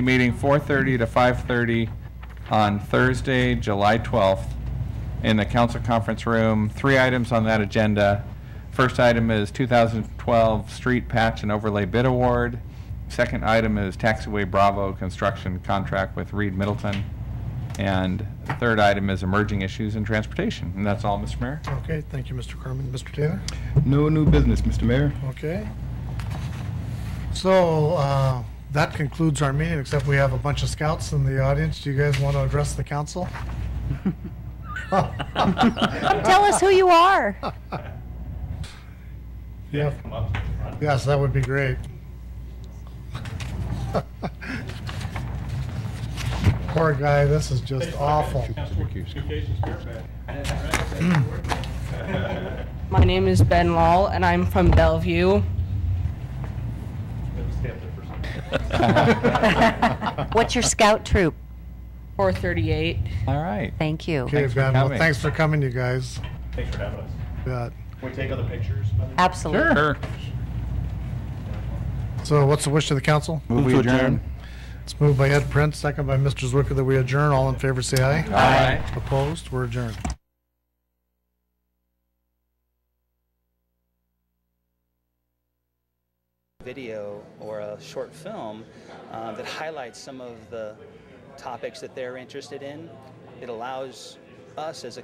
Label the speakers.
Speaker 1: meeting 4:30 to 5:30 on Thursday, July 12th, in the council conference room. Three items on that agenda. First item is 2012 Street Patch and Overlay Bid Award. Second item is Taxiway Bravo Construction Contract with Reed Middleton. And the third item is Emerging Issues in Transportation. And that's all, Mr. Mayor.
Speaker 2: Okay, thank you, Mr. Kerman. Mr. Taylor?
Speaker 3: No new business, Mr. Mayor.
Speaker 2: Okay. So uh, that concludes our meeting, except we have a bunch of scouts in the audience. Do you guys want to address the council?
Speaker 4: Tell us who you are.
Speaker 2: Yeah. Yes, that would be great. Poor guy, this is just awful.
Speaker 5: My name is Ben Law, and I'm from Bellevue.
Speaker 4: What's your scout troop?
Speaker 5: 438.
Speaker 1: All right.
Speaker 4: Thank you.
Speaker 2: Okay,
Speaker 1: Thanks for
Speaker 2: Ben, well,
Speaker 1: coming.
Speaker 2: thanks for coming, you guys.
Speaker 6: Thanks for having us.
Speaker 2: Bet.
Speaker 6: Can we take other pictures? by the way?
Speaker 4: Absolutely.
Speaker 1: Sure.
Speaker 2: So what's the wish of the council?
Speaker 3: Move to adjourn.
Speaker 2: It's moved by Ed Prince, second by Mr. Zwicker that we adjourn. All in favor, say aye.
Speaker 1: Aye.
Speaker 2: Opposed? We're adjourned.
Speaker 7: video or a short film uh, that highlights some of the topics that they're interested in. It allows us as a